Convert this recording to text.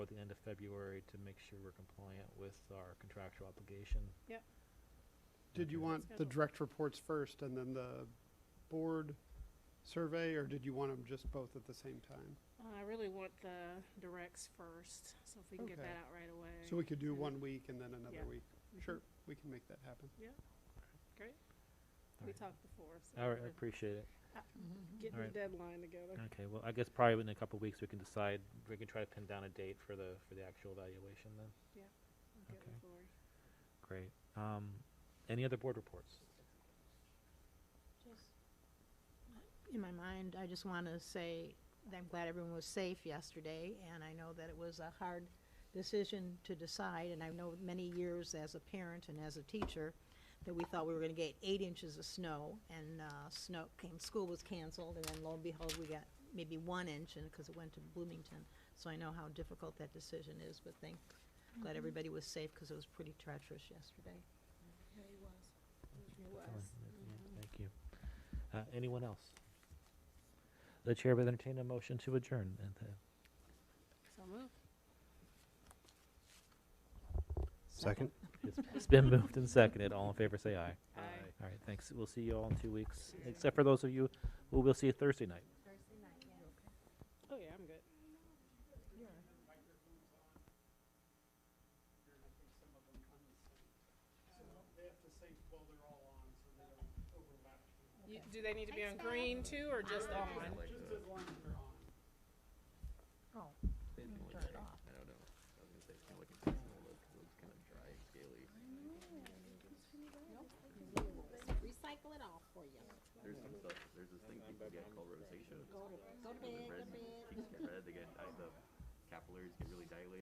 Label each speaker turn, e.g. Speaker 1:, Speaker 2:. Speaker 1: necessary to make sure we're compliant with our contractual obligation.
Speaker 2: Yep.
Speaker 3: Did you
Speaker 1: Okay.
Speaker 3: want the
Speaker 2: Schedule.
Speaker 3: direct reports first and then the board survey, or did you want them just both at the same time?
Speaker 2: Uh, I really want the directs first, so if we can get
Speaker 3: Okay.
Speaker 2: that out right away.
Speaker 3: So we could do
Speaker 2: and-
Speaker 3: one week and then another
Speaker 2: Yeah.
Speaker 3: week. Sure, we can make that happen.
Speaker 2: Great.
Speaker 1: All
Speaker 2: We
Speaker 1: right.
Speaker 2: talked before, so.
Speaker 1: All right, I
Speaker 2: we're
Speaker 1: appreciate it.
Speaker 2: Getting
Speaker 1: all
Speaker 2: the
Speaker 1: right.
Speaker 2: deadline together.
Speaker 1: Okay, well, I guess probably within a couple of weeks, we can decide, we can try to pin down a date for the, for the actual evaluation then.
Speaker 2: I'll get
Speaker 1: okay.
Speaker 2: with Lori.
Speaker 1: Great. Um, any other board reports?
Speaker 4: Just In my mind, I just want to say that I'm glad everyone was safe yesterday, and I know that it was a hard decision to decide, and I know many years as a parent and as a teacher, that we thought we were going to get eight inches of snow, and uh, snow came, school was canceled, and then lo and behold, we got maybe one inch, and because it went to Bloomington. So I know how difficult that decision is, but thank,
Speaker 2: Mm-hmm.
Speaker 4: glad everybody was safe, because it was pretty treacherous yesterday.
Speaker 2: Yeah, he was. He
Speaker 1: Fine,
Speaker 2: was. Mm-hmm.
Speaker 1: yeah, Thank you. Uh, anyone else? The chair would entertain a motion to adjourn and, uh,
Speaker 2: So move.
Speaker 5: Second?
Speaker 1: It's- It's been moved and seconded. All in favor, say aye.
Speaker 2: Aye.
Speaker 1: All right, thanks. We'll see you all in two weeks, except for those of you who we'll see Thursday night.
Speaker 2: Oh, yeah, I'm good.
Speaker 3: They have to sync while they're all on, so they don't overlap.
Speaker 2: You, do they need to be on green too, or just on?
Speaker 3: Just as long as they're on.
Speaker 4: Oh, turn it off.
Speaker 6: recycle it all for you.
Speaker 5: There's some stuff, there's this thing people get called rosacea.
Speaker 6: Go to, go to
Speaker 5: Red,
Speaker 6: bed, go to bed.
Speaker 5: cheeks get red, they get di- the capillaries get really